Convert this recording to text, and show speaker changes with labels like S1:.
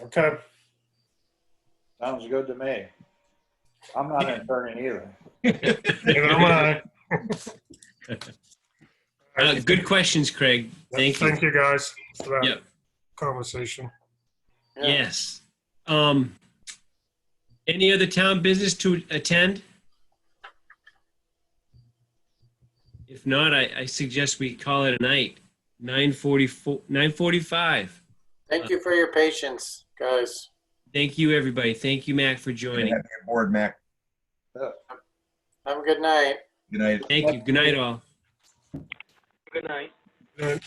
S1: Okay.
S2: Sounds good to me. I'm not an attorney either.
S1: Neither am I.
S3: Uh, good questions, Craig. Thank you.
S1: Thank you guys for that
S3: Yep.
S1: conversation.
S2: Yeah.
S3: Yes. Um, any other town business to attend? If not, I, I suggest we call it a night. 944, 945.
S4: Thank you for your patience, guys.
S3: Thank you, everybody. Thank you, Mac, for joining.
S5: Happy aboard, Mac.
S4: Have a good night.
S5: Good night.
S3: Thank you. Good night, all.
S6: Good night.
S1: Good.